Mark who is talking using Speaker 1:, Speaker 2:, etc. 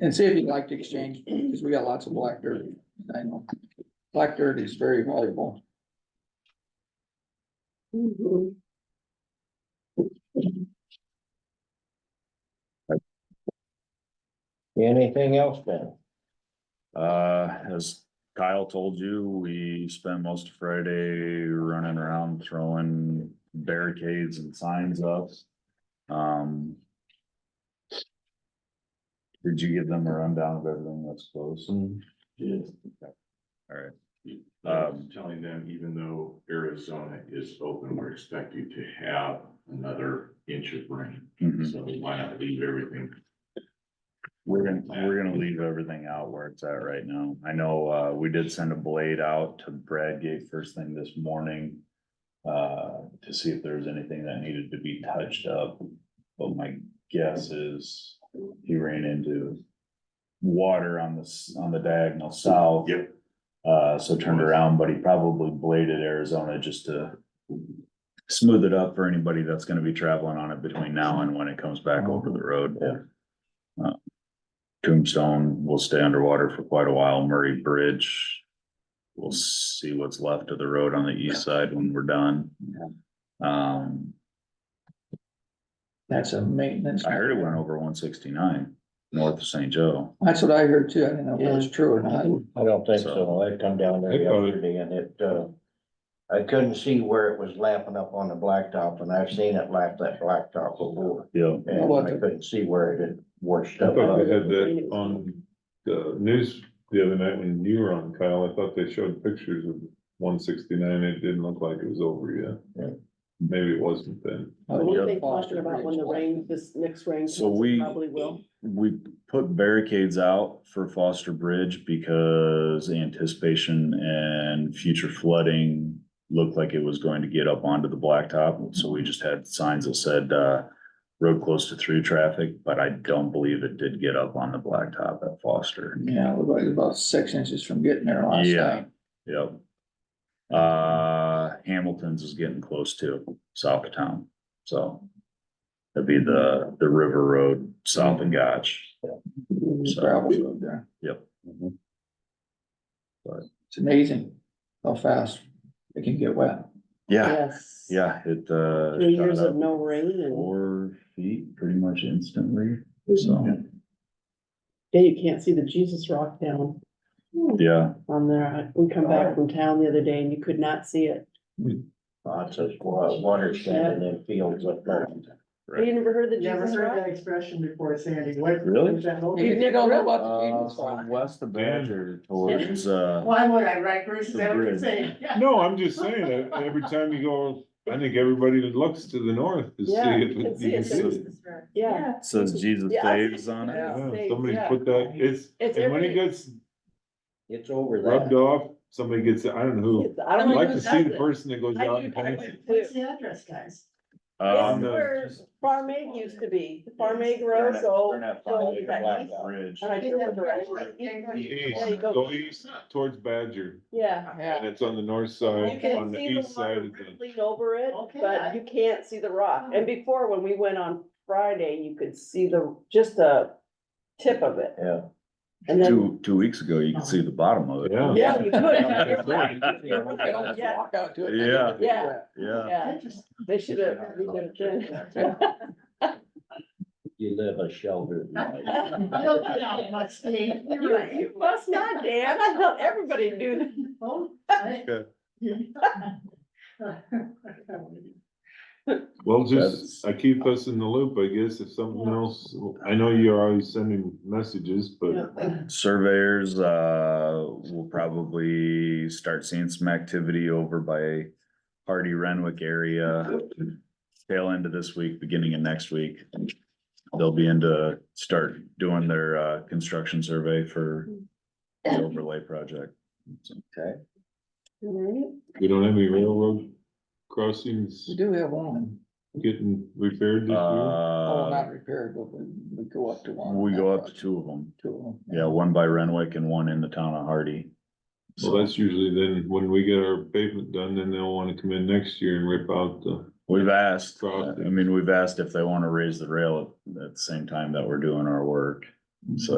Speaker 1: And see if you'd like to exchange, because we got lots of black dirt, I know. Black dirt is very valuable.
Speaker 2: Anything else, Ben?
Speaker 3: Uh, as Kyle told you, we spent most of Friday running around throwing barricades and signs up. Um. Did you give them a rundown of everything that's closed?
Speaker 4: Yes.
Speaker 3: Alright, Um,
Speaker 4: Um, telling them even though Arizona is open, we're expecting to have another inch of rain.
Speaker 3: mhm.
Speaker 4: So why not leave everything?
Speaker 3: We're gonna, we're gonna leave everything out where it's at right now. I know, uh, we did send a blade out to Bradgate first thing this morning. Uh, to see if there was anything that needed to be touched up, but my guess is he ran into. Water on the, s- on the diagonal south.
Speaker 4: Yep.
Speaker 3: Uh, so turned around, but he probably bladed Arizona just to. Smooth it up for anybody that's gonna be traveling on it between now and when it comes back over the road. Uh, Tombstone will stay underwater for quite a while. Murray Bridge. We'll see what's left of the road on the east side when we're done. Um,
Speaker 1: That's a maintenance.
Speaker 3: I heard it went over one sixty-nine north of St. Joe.
Speaker 1: That's what I heard too. I didn't know if it was true or not.
Speaker 2: I don't think so. I come down there yesterday and it, uh, I couldn't see where it was lapping up on the blacktop and I've seen it lap that blacktop before.
Speaker 3: Yeah.
Speaker 2: And I couldn't see where it had washed
Speaker 5: I
Speaker 2: up.
Speaker 5: thought they had that on the news the other night when you were on, Kyle. I thought they showed pictures of one sixty-nine. It didn't look like it was over yet.
Speaker 2: Yeah.
Speaker 5: Maybe it wasn't then.
Speaker 6: What are they
Speaker 1: Foster
Speaker 6: talking about when the
Speaker 1: Bridge.
Speaker 6: rain, this next rain?
Speaker 3: So
Speaker 6: comes?
Speaker 3: we-
Speaker 6: Probably will.
Speaker 3: We put barricades out for Foster Bridge because anticipation and future flooding looked like it was going to get up onto the blacktop, so we just had signs that said, uh, road closed to through traffic, but I don't believe it did get up on the blacktop at Foster.
Speaker 1: Yeah, it was about six inches from getting there last
Speaker 3: Yeah.
Speaker 1: night.
Speaker 3: Yep. Uh, Hamilton's is getting close to south of town, so. That'd be the, the river road south of Gotch. So-
Speaker 1: Gravel road there.
Speaker 3: Yep. Mhm.
Speaker 1: It's amazing how fast it can get wet.
Speaker 3: Yeah,
Speaker 6: Yes.
Speaker 3: yeah, it, uh.
Speaker 6: Three
Speaker 3: shot
Speaker 6: years
Speaker 3: up
Speaker 6: of no rain and,
Speaker 3: Four feet pretty much instantly, so,
Speaker 6: yeah, you can't see the Jesus rock down
Speaker 3: yeah,
Speaker 6: on there. We come
Speaker 7: Oh.
Speaker 6: back from town the other day and you could not see it.
Speaker 2: Lots of wa- water standing in fields up there.
Speaker 3: Right.
Speaker 6: You never heard the
Speaker 7: Never
Speaker 6: Jesus
Speaker 7: heard
Speaker 6: rock?
Speaker 7: that expression before, Sandy. What?
Speaker 3: Really?
Speaker 7: is that whole-
Speaker 1: You don't know about the
Speaker 3: uh,
Speaker 1: Eagles.
Speaker 3: from west of Badger towards, uh,
Speaker 7: Why would I write verses?
Speaker 3: The
Speaker 7: I would
Speaker 3: bridge.
Speaker 7: say, yeah.
Speaker 5: No, I'm just saying that every time you go, I think everybody that looks to the north to see
Speaker 6: Yeah,
Speaker 5: it.
Speaker 6: you can
Speaker 5: you
Speaker 6: see
Speaker 5: can
Speaker 6: it.
Speaker 5: see it.
Speaker 6: Yeah.
Speaker 3: says Jesus
Speaker 6: Yeah, I-
Speaker 3: saves on it.
Speaker 6: Yeah.
Speaker 5: Yeah, Somebody put that, it's,
Speaker 6: It's
Speaker 5: and when it
Speaker 6: every-
Speaker 5: gets
Speaker 2: It's over
Speaker 5: rubbed
Speaker 2: that.
Speaker 5: off, somebody gets, it. I don't know who.
Speaker 6: It's- I
Speaker 5: I'd
Speaker 6: don't know
Speaker 5: like
Speaker 6: who
Speaker 5: to see
Speaker 6: does
Speaker 5: the
Speaker 6: it.
Speaker 5: person that goes
Speaker 6: I
Speaker 5: out
Speaker 6: do-
Speaker 5: and
Speaker 6: I
Speaker 5: paints
Speaker 6: do
Speaker 5: it.
Speaker 6: too.
Speaker 7: What's the address, guys?
Speaker 3: Um,
Speaker 6: It's
Speaker 5: no,
Speaker 6: where Farm Aid used to be, the Farm Aid Road,
Speaker 3: Turn
Speaker 6: so.
Speaker 3: that
Speaker 6: so
Speaker 3: five
Speaker 6: you
Speaker 3: acre
Speaker 6: got
Speaker 3: black
Speaker 6: east-
Speaker 3: bridge.
Speaker 6: and I
Speaker 7: Isn't that
Speaker 6: drove
Speaker 7: right?
Speaker 6: around. There you
Speaker 5: East,
Speaker 6: go.
Speaker 5: go east towards Badger,
Speaker 6: Yeah.
Speaker 5: and it's on the north side,
Speaker 6: You
Speaker 5: on
Speaker 6: can
Speaker 5: the
Speaker 6: see the
Speaker 5: east side
Speaker 6: water
Speaker 5: of the.
Speaker 6: rippling over it,
Speaker 7: Okay, I-
Speaker 6: but you can't see the rock. And before, when we went on Friday, you could see the, just the tip of it.
Speaker 2: Yeah.
Speaker 6: And then,
Speaker 3: Two, two weeks ago, you could see the bottom of it.
Speaker 5: Yeah.
Speaker 6: yeah, you could. You're right. You're
Speaker 1: I can almost
Speaker 6: right. Yeah,
Speaker 1: walk out to it.
Speaker 3: Yeah.
Speaker 6: Yeah.
Speaker 3: Yeah,
Speaker 6: yeah. They should have.
Speaker 2: You live a sheltered life.
Speaker 7: Don't get out my state. You're
Speaker 6: You
Speaker 7: right.
Speaker 6: you must not, Dan. I thought everybody knew that.
Speaker 7: Oh, I-
Speaker 5: Okay. Well,
Speaker 3: That's-
Speaker 5: just, I keep us in the loop, I guess, if something else, I know you're always sending messages, but
Speaker 3: surveyors, uh, will probably start seeing some activity over by Hardy Renwick area. Tail end of this week, beginning of next week. They'll be into, start doing their, uh, construction survey for the overlay project.
Speaker 5: we don't have any railroad crossings
Speaker 1: We do have one.
Speaker 5: getting repaired this year.
Speaker 1: Oh,
Speaker 3: Uh,
Speaker 1: not repaired, but we, we go up to one.
Speaker 3: we go up to two of them.
Speaker 1: Two of them.
Speaker 3: Yeah, one by Renwick and one in the town of Hardy.
Speaker 5: So that's usually then, when we get our pavement done, then they'll wanna come in next year and rip out the,
Speaker 3: We've asked, I
Speaker 5: Crossing.
Speaker 3: mean, we've asked if they wanna raise the rail at, at the same time that we're doing our work, so.